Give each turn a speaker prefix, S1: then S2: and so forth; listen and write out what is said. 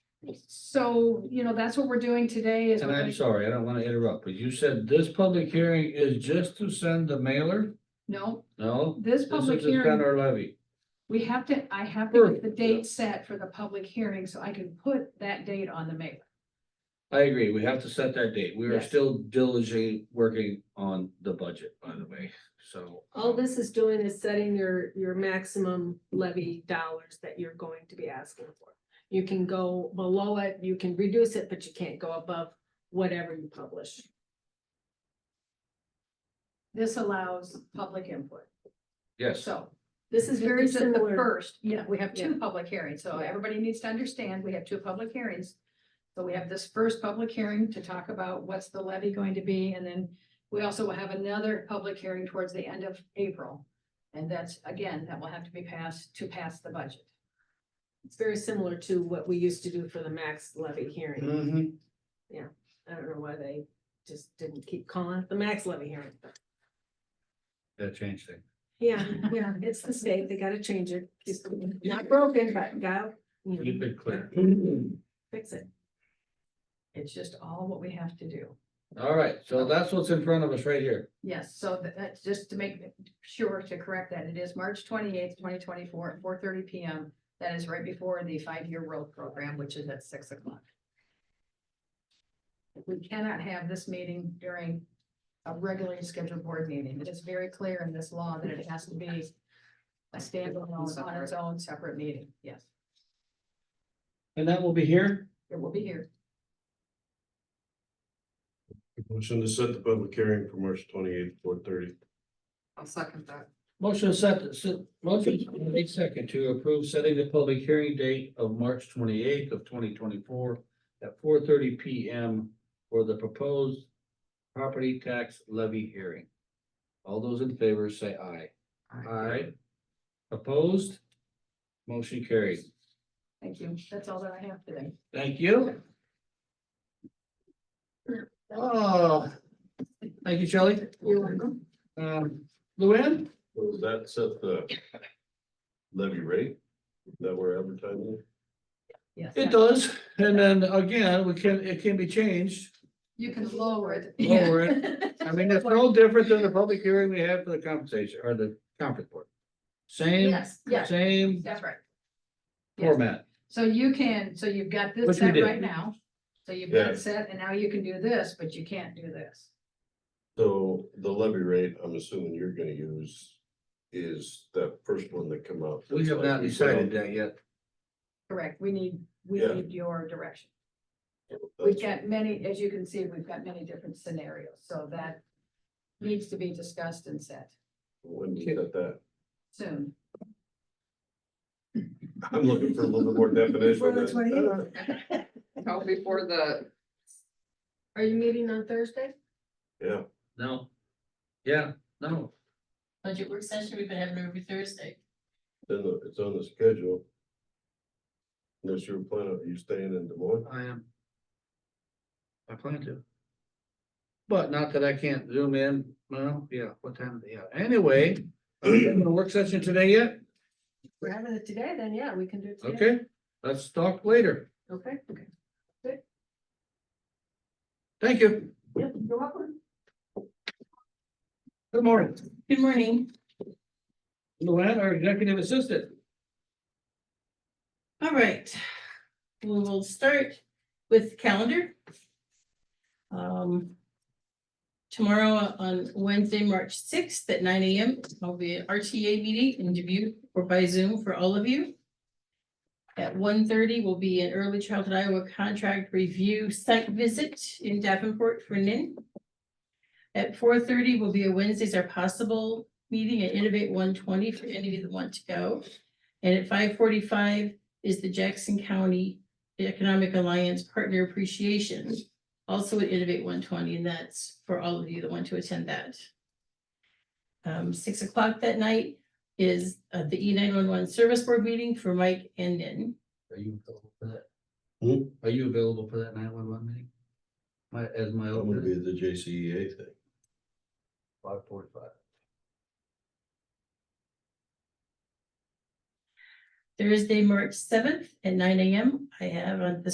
S1: So, you know, that's what we're doing today is.
S2: And
S1: we're
S2: I'm
S1: gonna-
S2: sorry, I don't want to interrupt, but you said this public hearing is just to send the mailer?
S1: No,
S2: No?
S1: this
S2: This is
S1: public
S2: to spend
S1: hearing,
S2: our levy.
S1: we have to, I have to get the
S2: Sure.
S1: date set for the public hearing so I can put that date on the mailer.
S2: I agree, we have to set that date. We are
S1: Yes.
S2: still diligently working on the budget, by the way, so.
S3: All this is doing is setting your, your maximum levy dollars that you're going to be asking for. You can go below it, you can reduce it, but you can't go above whatever you publish.
S1: This allows public input,
S2: Yes,
S1: so.
S3: This is very
S1: This the
S3: similar.
S1: First, yeah, we have two
S3: Yeah.
S1: public hearings, so
S3: Yeah.
S1: everybody needs to understand, we have two public hearings. So we have this first public hearing to talk about what's the levy going to be, and then we also will have another public hearing towards the end of April. And that's, again, that will have to be passed to pass the budget.
S3: It's very similar to what we used to do for the max levy hearing.
S2: Mhm.
S3: I don't know why they just didn't keep calling it the max levy hearing. but-
S2: that changed things.
S3: Yeah, yeah, it's the state. They gotta change it. It's not broken, but gotta, you
S2: You've
S3: know,
S2: been clear. Mm-hmm.
S3: fix it.
S1: It's just all what we have to do.
S2: All right, so that's what's in front of us right here.
S1: Yes, so that- that's just to make sure to correct that. It is March twenty-eighth, twenty twenty-four, at four thirty P M. That is right before the five-year road program, which is at six o'clock. We cannot have this meeting during a regularly scheduled board meeting. It is very clear in this law that it has to be a standalone on its own separate meeting. Yes,
S2: And that will be here?
S1: it will be here.
S4: Motion to set the public hearing for March twenty-eighth, four thirty.
S1: I'll second that.
S2: Motion set, set, motion made second to approve setting the public hearing date of March twenty-eighth of twenty twenty-four at four thirty P M for the proposed property tax levy hearing. All those in favor say aye. Aye. Opposed? Motion carried.
S1: Thank you. That's all that I have today.
S2: Thank you. Oh, thank you, Shelley.
S1: You're welcome.
S2: Um, Luann?
S4: Was that set the levy rate that we're advertising?
S1: Yes.
S2: It does, and then again, we can, it can be changed.
S1: You can lower it.
S2: Lower I mean, it's no different than the public hearing we had for the compensation or the conference board. Same,
S1: Yes, yes.
S2: same
S1: That's right. Yes.
S2: format.
S1: So you can, so you've got this
S2: Which we
S1: set
S2: did.
S1: right now. So you've got it
S4: Yeah.
S1: set and now you can do this, but you can't do this.
S4: So the levy rate, I'm assuming you're gonna use is that first one that come up.
S2: We have not decided that yet.
S1: Correct. We need, we
S4: Yeah.
S1: need your direction. We've
S4: That's-
S1: got many, as you can see, we've got many different scenarios. So that needs to be discussed and set
S4: When you set that,
S1: soon.
S4: I'm looking for a little bit more definition.
S3: Before the
S4: of that.
S5: Oh, before the,
S3: Are you meeting on Thursday?
S4: Yeah,
S2: No. Yeah, no.
S6: budget work session, we've been having every Thursday.
S4: then the- it's on the schedule. Unless you're planning, are you staying in Des Moines?
S2: I am. I plan to. But not that I can't zoom in, well, yeah, what time, yeah, anyway, are we having a work session today yet?
S3: We're having it today, then yeah, we can do it today.
S2: Okay, let's talk later.
S3: Okay. Okay.
S2: Thank you.
S3: Yep, you're welcome.
S2: Good morning.
S6: Good morning.
S2: Luann, our executive assistant.
S6: All right. We will start with calendar. Um. Tomorrow on Wednesday, March sixth at nine AM, I'll be at RTA meeting in Dubuque or by Zoom for all of you. At 1:30 thirty will be an early childhood Iowa contract review site visit in Davenport for NIN. At four thirty will be a Wednesdays are possible meeting at Innovate one twenty for any of you that want to go. And at five forty-five is the Jackson County Economic Alliance Partner Appreciation. Also at Innovate one twenty, and that's for all of you that want to attend that. Um, six o'clock that night is uh, the E nine one one Service Board meeting for Mike and Nin.
S2: Are you available for that?
S4: Hmm?
S2: Are you available for that nine one one meeting? My, as my
S4: I'm gonna be
S2: alternate,
S4: at the JCEA thing.
S2: five forty-five.
S6: Thursday, March seventh at nine AM, I have on the